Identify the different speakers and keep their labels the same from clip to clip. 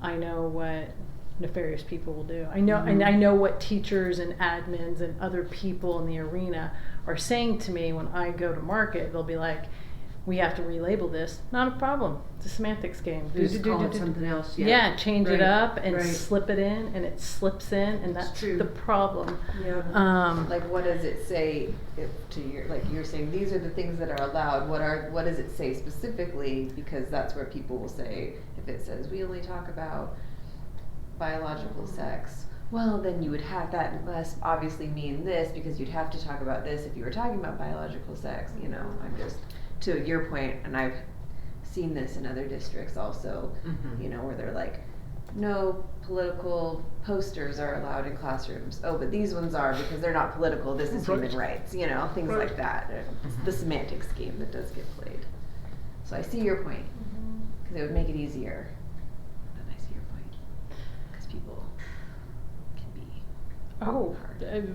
Speaker 1: I know what nefarious people will do. I know,
Speaker 2: Mm-hmm.
Speaker 1: and I know what teachers and admins and other people in the arena are saying to me when I go to market. They'll be like, "We have to relabel this. Not a problem. It's a semantics game. Do, do,
Speaker 2: Just
Speaker 1: do,
Speaker 2: call
Speaker 1: do,
Speaker 2: it
Speaker 1: do, do."
Speaker 2: something else,
Speaker 1: Yeah,
Speaker 2: yeah.
Speaker 1: change
Speaker 2: Right,
Speaker 1: it up and
Speaker 2: right.
Speaker 1: slip it in, and it slips in, and
Speaker 2: It's
Speaker 1: that's
Speaker 2: true.
Speaker 1: the problem.
Speaker 2: Yeah.
Speaker 1: Um,
Speaker 3: Like, what does it say if, to your, like, you're saying, these are the things that are allowed, what are, what does it say specifically? Because that's where people will say, if it says, we only talk about biological sex, well, then you would have, that must obviously mean this, because you'd have to talk about this if you were talking about biological sex, you know, I'm just, to your point, and I've seen this in other districts also,
Speaker 2: Mhm.
Speaker 3: you know, where they're like, no political posters are allowed in classrooms. Oh, but these ones are because they're not political. This is human rights, you know, things like that. It's
Speaker 4: Mm-hmm.
Speaker 3: the semantics game that does get played. So I see your point because it would make it easier. But I see your point because people can be.
Speaker 1: oh,
Speaker 3: Hard.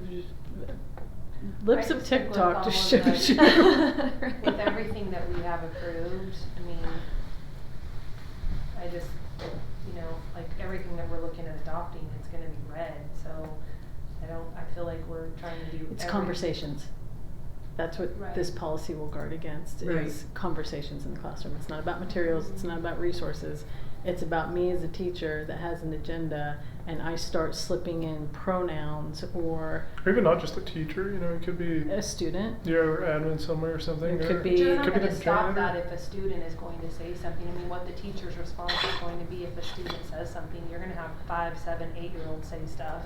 Speaker 1: uh, lips
Speaker 5: I
Speaker 1: of
Speaker 5: just think with
Speaker 1: TikTok just
Speaker 5: all of
Speaker 1: shows you.
Speaker 5: With everything that we have approved, I mean, I just, you know, like everything that we're looking at adopting, it's gonna be red, so I don't, I feel like we're trying to do
Speaker 1: It's
Speaker 5: every-
Speaker 1: conversations. That's what
Speaker 5: Right.
Speaker 1: this policy will guard against
Speaker 2: Right.
Speaker 1: is conversations in the classroom. It's not about materials, it's not about resources. It's about me as a teacher that has an agenda and I start slipping in pronouns or
Speaker 4: Or even not just a teacher, you know, it could be
Speaker 1: a student.
Speaker 4: your admin somewhere or something.
Speaker 1: It
Speaker 4: or
Speaker 1: could
Speaker 5: But you're not
Speaker 1: Could
Speaker 4: be
Speaker 5: gonna
Speaker 4: the
Speaker 5: stop that
Speaker 4: janitor.
Speaker 5: if a student is going to say something, I mean, what the teacher's response is going to be if a student says something, you're gonna have five, seven, eight-year-olds say stuff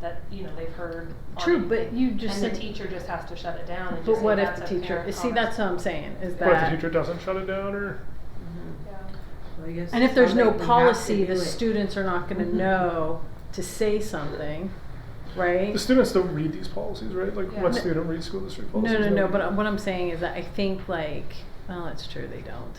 Speaker 5: that, you know, they've heard. on
Speaker 1: True, but
Speaker 5: anything.
Speaker 1: you just
Speaker 5: And the
Speaker 1: said-
Speaker 5: teacher just has to shut it down and just
Speaker 1: But
Speaker 5: say
Speaker 1: what if
Speaker 5: that's
Speaker 1: the
Speaker 5: a
Speaker 1: teacher,
Speaker 5: parent
Speaker 1: see, that's what I'm
Speaker 5: comment."
Speaker 1: saying, is
Speaker 4: What if the
Speaker 1: that,
Speaker 4: teacher doesn't shut it down or
Speaker 5: Yeah.
Speaker 2: Well, I guess
Speaker 1: and if
Speaker 2: it
Speaker 1: there's
Speaker 2: sounds
Speaker 1: no
Speaker 2: like we have to
Speaker 1: policy,
Speaker 2: do
Speaker 1: the
Speaker 2: it.
Speaker 1: students are not gonna
Speaker 2: Mhm.
Speaker 1: know to say something, right?
Speaker 4: the students don't read these policies, right? Like
Speaker 5: Yeah.
Speaker 4: one
Speaker 5: No.
Speaker 4: student reads school district
Speaker 1: No,
Speaker 4: policies.
Speaker 1: no,
Speaker 4: don't
Speaker 1: no,
Speaker 4: we?
Speaker 1: but what I'm saying is that I think like, well, it's true, they don't.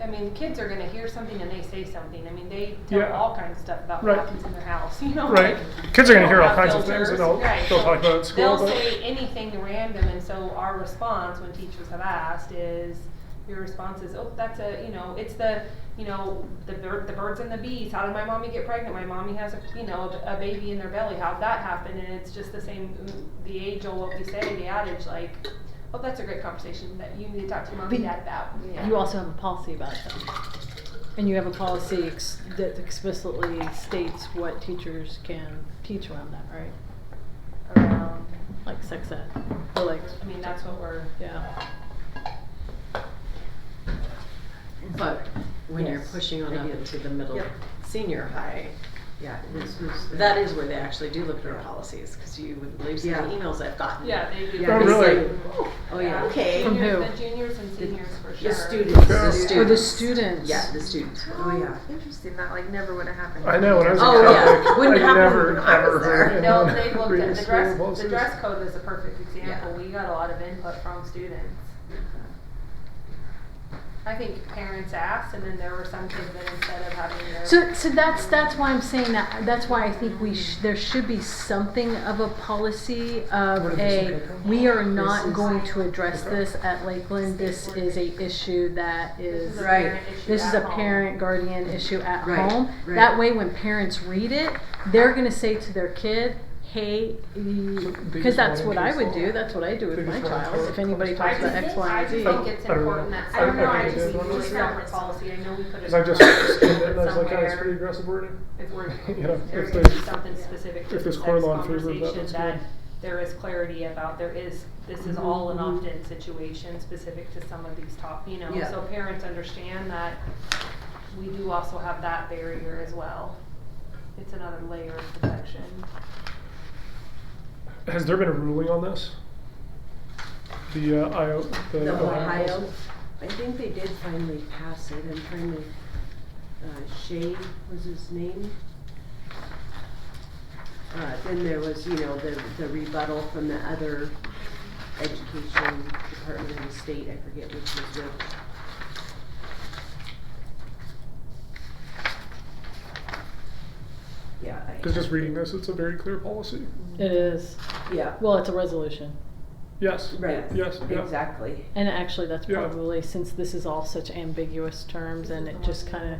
Speaker 5: I mean, kids are gonna hear something and they say something. I mean, they tell
Speaker 4: Yeah.
Speaker 5: all kinds of stuff about
Speaker 4: Right.
Speaker 5: what happens in their house, you know?
Speaker 4: Right.
Speaker 5: like,
Speaker 4: Kids are gonna
Speaker 5: they
Speaker 4: hear
Speaker 5: don't
Speaker 4: all
Speaker 5: have
Speaker 4: kinds of things
Speaker 5: filters.
Speaker 4: and they'll,
Speaker 5: Right.
Speaker 4: they'll talk about it at school.
Speaker 5: They'll
Speaker 4: but-
Speaker 5: say anything random, and so our response when teachers have asked is, your response is, oh, that's a, you know, it's the, you know, the bird, the birds and the bees. How did my mommy get pregnant? My mommy has a, you know, a baby in their belly. How'd that happen? And it's just the same, the age old what we say, the adage, like, oh, that's a great conversation that you need to talk to your mom and
Speaker 1: But-
Speaker 5: dad about.
Speaker 3: Yeah.
Speaker 1: You also have a policy about that. And you have a policy ex- that explicitly states what teachers can teach around that, right?
Speaker 5: Around,
Speaker 1: Like sex ed, or like,
Speaker 5: I mean, that's what we're.
Speaker 1: yeah.
Speaker 6: But when you're
Speaker 2: Yes,
Speaker 6: pushing on
Speaker 2: I
Speaker 6: up
Speaker 2: do.
Speaker 6: into the middle
Speaker 2: Yep.
Speaker 6: senior high,
Speaker 2: Yeah, this was.
Speaker 6: that is where they actually do look at our policies, because you would believe some of the
Speaker 2: Yeah.
Speaker 6: emails I've gotten.
Speaker 5: Yeah, they do.
Speaker 2: Yeah.
Speaker 4: Oh,
Speaker 6: It's
Speaker 4: really?
Speaker 6: like,
Speaker 2: Oh, yeah.
Speaker 6: Okay.
Speaker 1: From
Speaker 5: Juniors-
Speaker 1: who?
Speaker 5: The juniors and seniors for sure.
Speaker 6: The students,
Speaker 4: Yeah.
Speaker 6: the students.
Speaker 1: Or the students.
Speaker 6: Yeah, the students.
Speaker 2: Oh, yeah.
Speaker 3: Interesting. That like never would have happened.
Speaker 4: I know when I was a
Speaker 6: Oh, yeah.
Speaker 4: Catholic,
Speaker 6: Wouldn't
Speaker 4: I
Speaker 6: happen
Speaker 4: never
Speaker 6: when I was
Speaker 4: ever
Speaker 6: there.
Speaker 4: heard
Speaker 5: No,
Speaker 4: anyone
Speaker 5: they looked
Speaker 4: reading
Speaker 5: at, the
Speaker 4: school
Speaker 5: dress, the
Speaker 4: policies.
Speaker 5: dress code is a perfect example,
Speaker 6: Yeah.
Speaker 5: we got a lot of input from students. I think parents asked, and then there were some kids that instead of having their.
Speaker 1: So, so that's, that's why I'm saying that, that's why I think we sh- there should be something of a policy
Speaker 4: What
Speaker 1: of
Speaker 4: if it's
Speaker 1: a,
Speaker 4: okay?
Speaker 1: we are
Speaker 2: This
Speaker 1: not
Speaker 2: is-
Speaker 1: going to address this at Lakeland, this is a issue that
Speaker 5: This
Speaker 1: is
Speaker 5: is a
Speaker 2: Right.
Speaker 5: parent issue
Speaker 1: This is
Speaker 5: at
Speaker 1: a
Speaker 5: home.
Speaker 1: parent guardian issue at
Speaker 2: Right,
Speaker 1: home.
Speaker 2: right.
Speaker 1: That way, when parents read it, they're going to say to their kid, hey, because
Speaker 4: biggest
Speaker 1: that's what I
Speaker 4: volunteer
Speaker 1: would do. That's what I do with my
Speaker 4: Biggest
Speaker 1: child.
Speaker 4: volunteer
Speaker 1: If anybody
Speaker 5: I
Speaker 1: talks
Speaker 5: just
Speaker 1: about
Speaker 5: think,
Speaker 1: X, Y,
Speaker 5: I
Speaker 1: and
Speaker 5: just
Speaker 1: Z.
Speaker 4: I-
Speaker 5: think it's
Speaker 4: I don't know.
Speaker 5: important that,
Speaker 4: I-
Speaker 5: I don't know,
Speaker 4: I
Speaker 5: I
Speaker 4: did
Speaker 5: just,
Speaker 4: one
Speaker 5: we
Speaker 4: just
Speaker 5: have
Speaker 4: now.
Speaker 5: a policy, I know we could have.
Speaker 4: Because I just skimmed it and I was like, oh, it's pretty aggressive wording.
Speaker 5: if we're,
Speaker 4: You know,
Speaker 5: there
Speaker 4: if
Speaker 5: could
Speaker 4: there's-
Speaker 5: be something specific to the
Speaker 4: if there's
Speaker 5: sex
Speaker 4: Corvalon fever, that
Speaker 5: conversation
Speaker 4: looks
Speaker 5: that
Speaker 4: good. Mm-hmm.
Speaker 5: there is clarity about, there is, this is all an opt-in situation specific to some of these top, you know,
Speaker 2: Yeah.
Speaker 5: so parents understand that we do also have that barrier as well. It's another layer of protection.
Speaker 4: Has there been a ruling on this? The uh, IO, the,
Speaker 2: The
Speaker 4: Ohio
Speaker 2: Ohio,
Speaker 4: policy?
Speaker 2: I think they did finally pass it, I'm trying to, uh, Shea was his name. Uh, then there was, you know, the, the rebuttal from the other education department in the state, I forget which was which. Yeah, I.
Speaker 4: Because just reading this, it's a very clear policy.
Speaker 1: It is.
Speaker 2: Yeah,
Speaker 1: Well, it's a resolution.
Speaker 4: Yes.
Speaker 2: right,
Speaker 4: Yes. Yeah.
Speaker 2: exactly.
Speaker 1: And actually, that's
Speaker 4: Yeah.
Speaker 1: probably since this is all such ambiguous terms and it just kind of